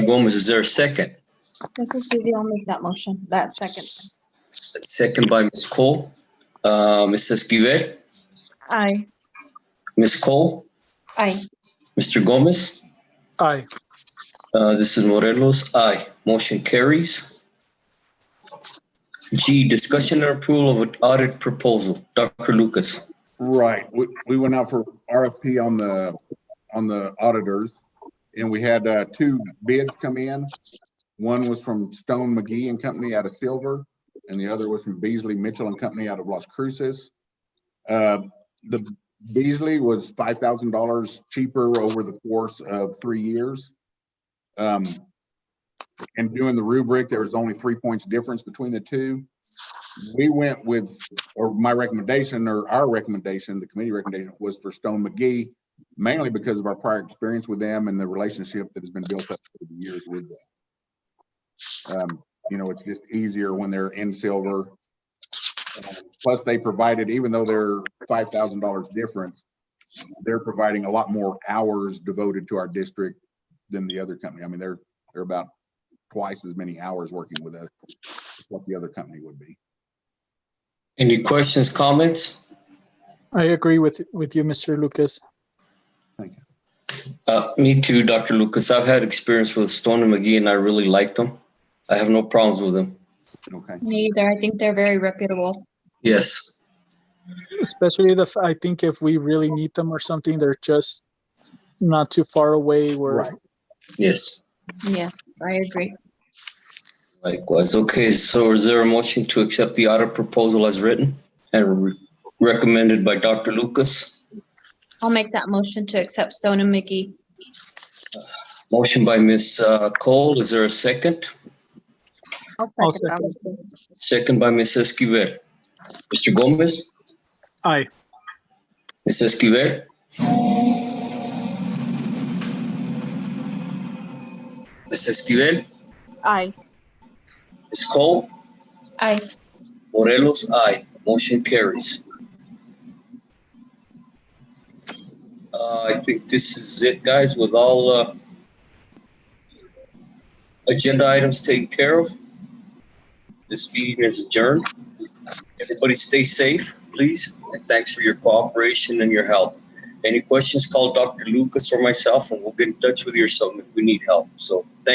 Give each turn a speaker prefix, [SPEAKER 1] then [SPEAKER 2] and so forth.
[SPEAKER 1] Gomez, is there a second?
[SPEAKER 2] This is Susie. I'll make that motion, that second.
[SPEAKER 1] Second by Ms. Cole. Uh, Mr. Esquivel,
[SPEAKER 2] Aye.
[SPEAKER 1] Ms. Cole,
[SPEAKER 2] Aye.
[SPEAKER 1] Mr. Gomez.
[SPEAKER 3] Aye.
[SPEAKER 1] Uh, this is Morelos. Aye. Motion carries. G, discussion and approval of an audit proposal. Dr. Lucas.
[SPEAKER 4] Right. We, we went out for RFP on the, on the auditors. And we had, uh, two bids come in. One was from Stone McGee and Company out of Silver, and the other was from Beasley Mitchell and Company out of Las Cruces. Uh, the Beasley was five thousand dollars cheaper over the course of three years. Um, and doing the rubric, there was only three points difference between the two. We went with or my recommendation or our recommendation, the committee recommendation was for Stone McGee, mainly because of our prior experience with them and the relationship that has been built up over the years with them. Um, You know, it's just easier when they're in silver. Uh, Plus, they provided, even though they're five thousand dollars difference, they're providing a lot more hours devoted to our district than the other company. I mean, they're, they're about twice as many hours working with us what the other company would be.
[SPEAKER 1] Any questions, comments?
[SPEAKER 3] I agree with, with you, Mr. Lucas.
[SPEAKER 1] Uh, me too, Dr. Lucas. I've had experience with Stone and McGee and I really liked them. I have no problems with them.
[SPEAKER 4] Okay.
[SPEAKER 2] Me either. I think they're very reputable.
[SPEAKER 1] Yes.
[SPEAKER 3] Especially the, f- I think if we really need them or something, they're just not too far away where
[SPEAKER 4] Right.
[SPEAKER 1] Yes.
[SPEAKER 2] Yes, I agree.
[SPEAKER 1] Likewise. Okay, so is there a motion to accept the audit proposal as written and re- recommended by Dr. Lucas?
[SPEAKER 2] I'll make that motion to accept Stone and McGee.
[SPEAKER 1] Motion by Ms. uh, Cole. Is there a second?
[SPEAKER 3] I'll
[SPEAKER 2] I'll second that motion.
[SPEAKER 1] Second by Ms. Esquivel. Mr. Gomez?
[SPEAKER 3] Aye.
[SPEAKER 1] Ms. Esquivel? Ms. Esquivel?
[SPEAKER 2] Aye.
[SPEAKER 1] Ms. Cole?
[SPEAKER 2] Aye.
[SPEAKER 1] Morelos, aye. Motion carries. Uh, I think this is it, guys, with all, uh, agenda items taken care of. This meeting is adjourned. Everybody stay safe, please, and thanks for your cooperation and your help. Any questions, call Dr. Lucas or myself, and we'll get in touch with yourself if we need help. So, thank